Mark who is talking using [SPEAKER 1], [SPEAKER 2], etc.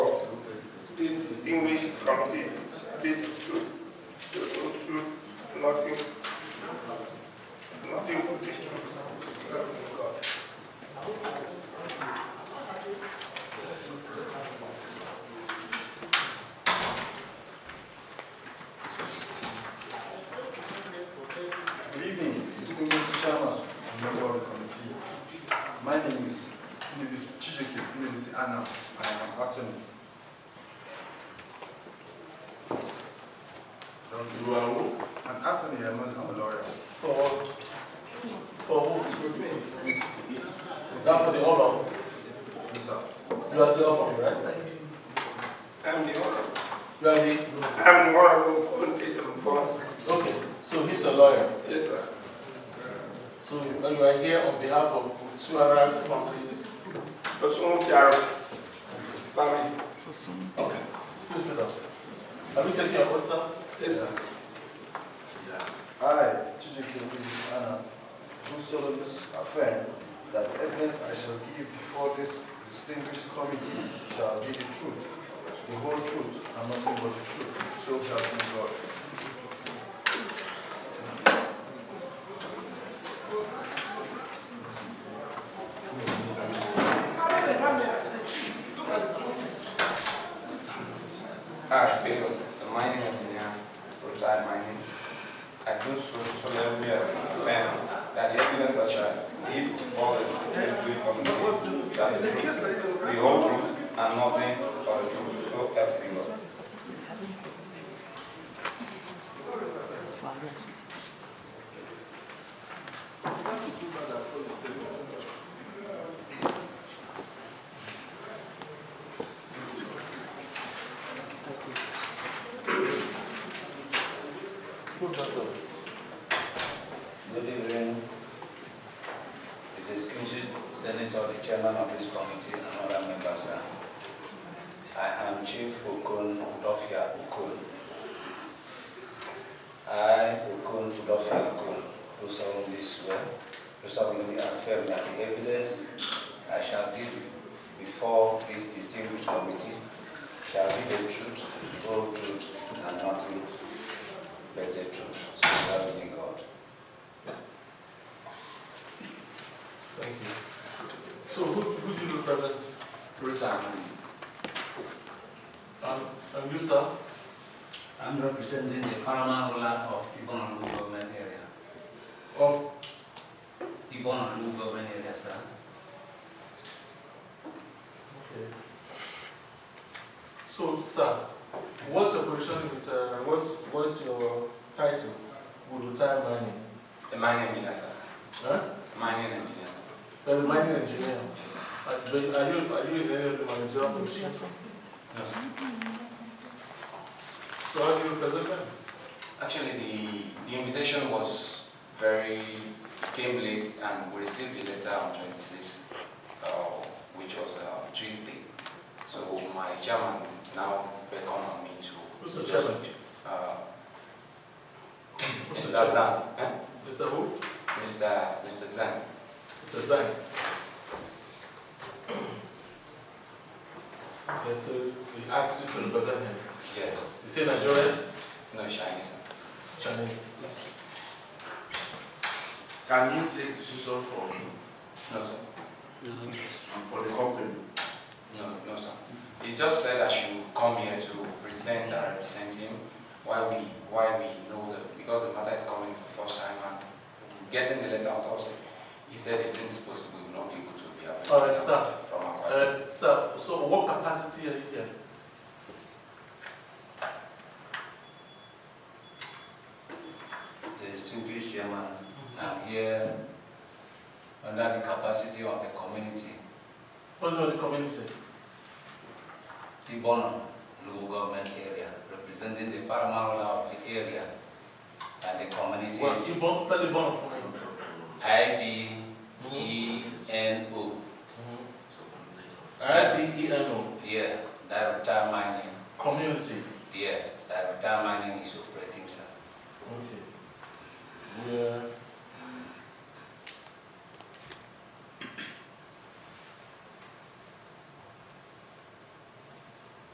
[SPEAKER 1] committees, bid two, to go through nothing, nothing would be true. Help me God.
[SPEAKER 2] Good evening, distinguished chairman and member of the committee. My name is Nivis Chijike, Nivis Anna, I am an attorney.
[SPEAKER 3] You are who?
[SPEAKER 2] An attorney, I'm not- I'm a lawyer.
[SPEAKER 3] For, for who is with me? That's for the honor.
[SPEAKER 2] Yes, sir.
[SPEAKER 3] You are the honor, right?
[SPEAKER 1] I'm the honor,
[SPEAKER 3] You are the,
[SPEAKER 1] I'm the honorable for date and forms.
[SPEAKER 3] okay, so he's a lawyer.
[SPEAKER 1] Yes, sir.
[SPEAKER 3] So you you are here on behalf of Suara families.
[SPEAKER 1] Osun Tiara, family.
[SPEAKER 3] Okay, please sit down. Have you taken your oath, sir?
[SPEAKER 1] Yes, sir.
[SPEAKER 2] I, Chijike, Nivis Anna, do solemnly affirm that the evidence I shall give before this distinguished committee shall be the truth, the whole truth, and nothing but the truth. So shall it be God.
[SPEAKER 4] As people, the mining engineer, retired mining, I do so solemnly affirm that the evidence I shall give before the Deputy Committee that the truth, the whole truth, and nothing but the truth, so help me God.
[SPEAKER 3] Close that door.
[SPEAKER 5] Good evening. The distinguished Senator, the Chairman of this committee, and other members. sir. I am Chief Okon Udofia Okon. I, Okon Udofia Okon, do solemnly swear, do solemnly affirm that the evidence I shall give before this distinguished committee shall be the truth, the whole truth, and nothing but the truth. So help me God.
[SPEAKER 3] Thank you. So who, who do you represent?
[SPEAKER 5] Bruce Ahmed.
[SPEAKER 3] And, and you, sir?
[SPEAKER 5] I'm representing the paramount ruler of Ibonalu government area.
[SPEAKER 3] Of,
[SPEAKER 5] Ibonalu government area, sir.
[SPEAKER 3] so, sir, what's your position with, uh, what's, what's your title with retired mining?
[SPEAKER 4] The mining engineer, sir.
[SPEAKER 3] Huh?
[SPEAKER 4] Mining engineer, sir.
[SPEAKER 3] You're a mining engineer.
[SPEAKER 4] Yes, sir.
[SPEAKER 3] Are are you, are you in any of the managerial position?
[SPEAKER 4] No, sir.
[SPEAKER 3] So how do you represent them?
[SPEAKER 4] Actually, the, the invitation was very, came late and we received the letter on 26th, uh, which was uh, Tuesday. So my chairman now beckoned on me to.
[SPEAKER 3] Who's the chairman?
[SPEAKER 4] Uh,
[SPEAKER 3] Who's
[SPEAKER 4] Mr.
[SPEAKER 3] the chairman?
[SPEAKER 4] Zhang, eh?
[SPEAKER 3] Mr. who?
[SPEAKER 4] Mr. Mr. Zhang.
[SPEAKER 3] Mr. Zhang. Yes, so he asked you to represent him.
[SPEAKER 4] Yes,
[SPEAKER 3] You say Nigerian?
[SPEAKER 4] no Chinese. sir.
[SPEAKER 3] It's Chinese.
[SPEAKER 6] Can you take decision for me
[SPEAKER 4] No, sir.
[SPEAKER 6] and for the company?
[SPEAKER 4] No, no, sir. He just said I should come here to present and represent him. Why we, why we know that because the matter is coming for the first time and getting the letter on Thursday. He said it's indisposable, we will not be able to be available.
[SPEAKER 3] All right, Oh, sir.
[SPEAKER 4] From our.
[SPEAKER 3] Uh, sir, so what capacity are you here?
[SPEAKER 5] The distinguished chairman, I'm here under the capacity of the community,
[SPEAKER 3] What do you community?
[SPEAKER 5] Ibono local government area, representing the paramount ruler of the area and the
[SPEAKER 3] Well,
[SPEAKER 5] communities.
[SPEAKER 3] you born, spell the born for me.
[SPEAKER 5] I B G N O.
[SPEAKER 3] I D E N O,
[SPEAKER 5] Yeah, Director Mining.
[SPEAKER 3] community.
[SPEAKER 5] Yeah, Director Mining is operating, sir.
[SPEAKER 3] Okay. We are